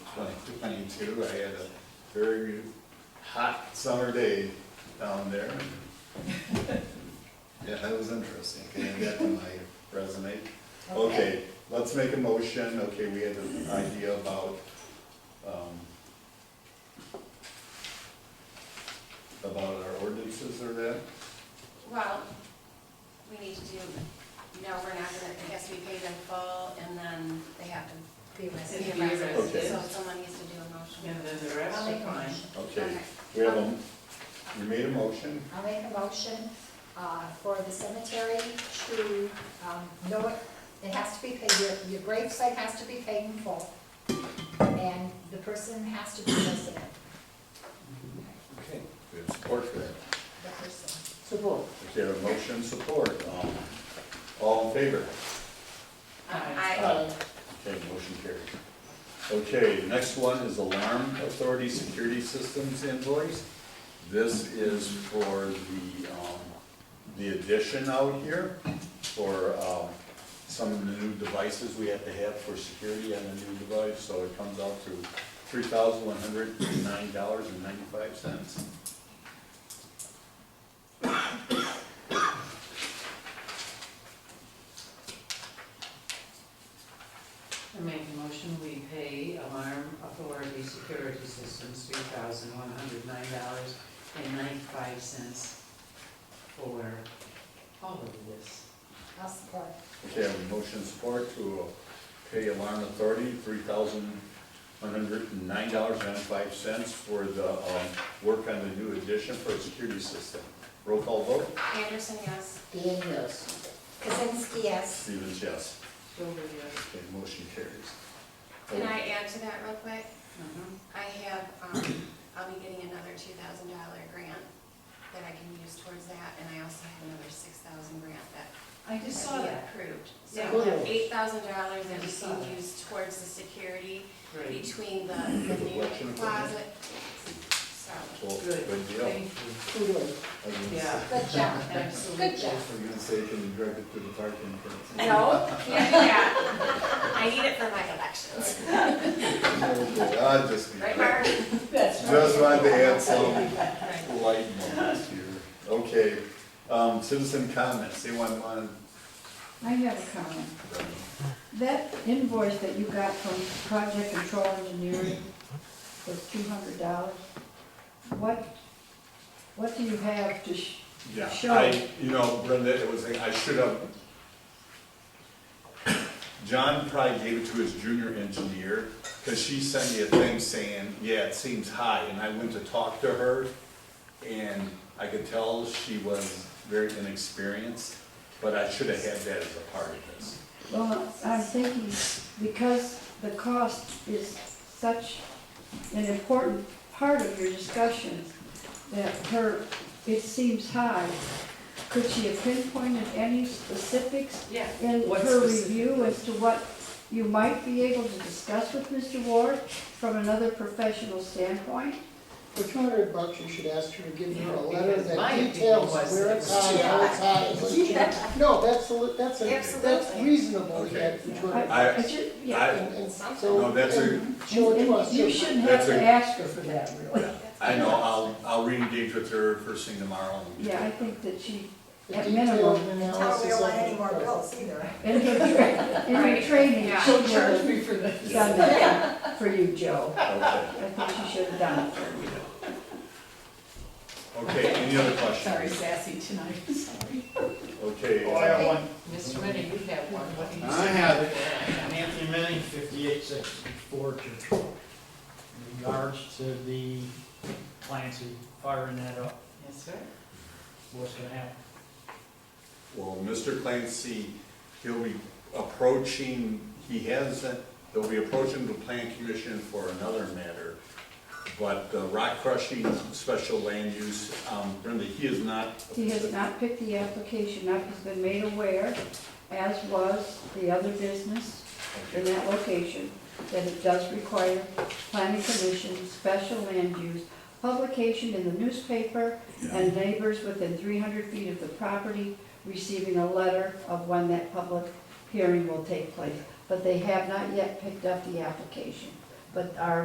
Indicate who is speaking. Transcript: Speaker 1: 2022. I had a very hot summer day down there. Yeah, that was interesting. Can I get to my resume? Okay, let's make a motion. Okay, we had an idea about, um, about our ordinances or that.
Speaker 2: Well, we need to do, no, we're not gonna, it has to be paid in full, and then they have to
Speaker 3: Be
Speaker 2: It's
Speaker 3: arrested.
Speaker 2: a
Speaker 4: Be
Speaker 2: resident,
Speaker 1: Okay.
Speaker 2: So someone needs to do a
Speaker 4: And
Speaker 2: motion.
Speaker 4: then the rest
Speaker 3: I'll
Speaker 4: are
Speaker 3: make a
Speaker 4: fine.
Speaker 3: motion.
Speaker 1: Okay, we have a, you made a motion?
Speaker 3: I'll make a motion uh, for the cemetery to, um, no, it- it has to be paid, your, your gravesite has to be paid in full. And the person has to be resident,
Speaker 1: Okay. We have support for that.
Speaker 3: the person.
Speaker 5: Support.
Speaker 1: Okay, a motion support. Um, All in favor?
Speaker 2: Um, I,
Speaker 1: Okay, motion carried. Okay, next one is alarm authority security systems invoice. This is for the, um, the addition out here for, um, some of the new devices we have to have for security on the new device, so it comes out to three thousand one hundred nine dollars and ninety-five cents.
Speaker 4: I make a motion, we pay alarm authority security systems three thousand one hundred nine dollars and ninety-five cents for all of this.
Speaker 3: I'll support.
Speaker 1: Okay, I have a motion support to pay alarm authority three thousand one hundred and nine dollars and five cents for the, um, work on the new addition for a security system. Roll call vote,
Speaker 2: Anderson, yes.
Speaker 5: Dan, yes.
Speaker 3: Kazinsky, yes.
Speaker 1: Stevens, yes.
Speaker 4: Shoulder,
Speaker 1: Okay, motion carries.
Speaker 2: Can I add to that real quick?
Speaker 4: yes.
Speaker 2: I have, um, I'll be getting another two thousand dollar grant that I can use towards that, and I also have another six thousand grant that
Speaker 4: I just saw that.
Speaker 2: Approved. So
Speaker 4: Yeah.
Speaker 2: eight thousand dollars that
Speaker 4: I
Speaker 2: we
Speaker 4: just saw
Speaker 2: can
Speaker 4: that.
Speaker 2: use towards the security
Speaker 4: Great.
Speaker 2: between the, the new
Speaker 1: Election equipment.
Speaker 2: closet. Sorry.
Speaker 1: Well,
Speaker 4: Good,
Speaker 1: Oh, good deal.
Speaker 4: thank
Speaker 5: Kudos.
Speaker 1: I was gonna
Speaker 4: Yeah.
Speaker 1: say-
Speaker 3: Good job,
Speaker 4: Absolutely.
Speaker 3: good job.
Speaker 1: I was gonna say, can you direct it to the parking person?
Speaker 2: No, can't do that. I need it for my elections.
Speaker 1: I just,
Speaker 2: Right, Mark?
Speaker 1: just wanted to add some. light moments here. Okay, um, citizen comments, anyone want
Speaker 6: I have a comment. That invoice that you got from Project Control Engineering was two hundred dollars. What, what do you have to, sh-
Speaker 1: Yeah,
Speaker 6: Sure.
Speaker 1: I, you know, Brenda, it was, like, I should have. John probably gave it to his junior engineer, cause she sent me a thing saying, yeah, it seems high, and I went to talk to her. And I could tell she was very inexperienced, but I should have had that as a part of this.
Speaker 6: well, I'm thinking, because the cost is such an important part of your discussion, that her, it seems high, could she have pinpointed any specifics
Speaker 4: Yeah.
Speaker 6: in
Speaker 4: What
Speaker 6: her
Speaker 4: specific-
Speaker 6: review as to what you might be able to discuss with Mr. Ward from another professional standpoint?
Speaker 5: For two hundred bucks, you should ask her to give her a letter
Speaker 4: Because my
Speaker 5: that
Speaker 4: opinion
Speaker 5: details
Speaker 4: was
Speaker 5: where
Speaker 4: that
Speaker 5: it's
Speaker 4: it was
Speaker 5: high,
Speaker 4: too
Speaker 5: how it's high. and what you- No, that's, a li- that's, a- that's
Speaker 2: Absolutely.
Speaker 5: reasonable, to
Speaker 1: Okay.
Speaker 5: get for two hundred.
Speaker 6: I-
Speaker 1: I-
Speaker 6: I ju- yeah.
Speaker 1: I,
Speaker 5: And, and so.
Speaker 1: No, that's a-
Speaker 5: and Show it to us.
Speaker 6: And You
Speaker 5: too.
Speaker 6: shouldn't
Speaker 1: That's
Speaker 6: have to
Speaker 1: a-
Speaker 6: ask her for that, really.
Speaker 1: I know, I'll, I'll re-engage with her first thing tomorrow. and-
Speaker 6: Yeah, I think that she,
Speaker 5: The
Speaker 6: At
Speaker 5: detailed
Speaker 6: minimum.
Speaker 5: analysis
Speaker 3: Tell her we don't want
Speaker 5: of
Speaker 3: any
Speaker 5: the
Speaker 3: more
Speaker 5: price.
Speaker 3: bills either.
Speaker 6: in her tra- in her
Speaker 2: Right.
Speaker 6: training,
Speaker 2: Yeah.
Speaker 6: she
Speaker 5: She'll
Speaker 6: would
Speaker 5: charge
Speaker 6: have
Speaker 5: me for this.
Speaker 6: done that for you, Joe.
Speaker 1: Okay.
Speaker 6: I think she should have done it.
Speaker 1: Okay, any other questions?
Speaker 7: Sorry, sassy tonight, sorry.
Speaker 1: Okay.
Speaker 8: Oh, I have one.
Speaker 4: Mr. Rennie, you have one, what do you
Speaker 8: I
Speaker 4: say?
Speaker 8: have it. I'm Anthony Manning, fifty-eight sixty-four Church Road. In regards to the Clancy firing that up,
Speaker 4: Yes, sir.
Speaker 8: what's gonna happen?
Speaker 1: Well, Mr. Clancy, he'll be approaching, he has, a- they'll be approaching the plan commission for another matter. But the rock crushing special land use, um, Brenda, he is not.
Speaker 6: He has not picked the application up, he's been made aware, as was the other business in
Speaker 1: Okay,
Speaker 6: that location, that it does require planning commission, special land use, publication in the newspaper,
Speaker 1: yeah.
Speaker 6: and neighbors within three hundred feet of the property receiving a letter of when that public hearing will take place. But they have not yet picked up the application, but are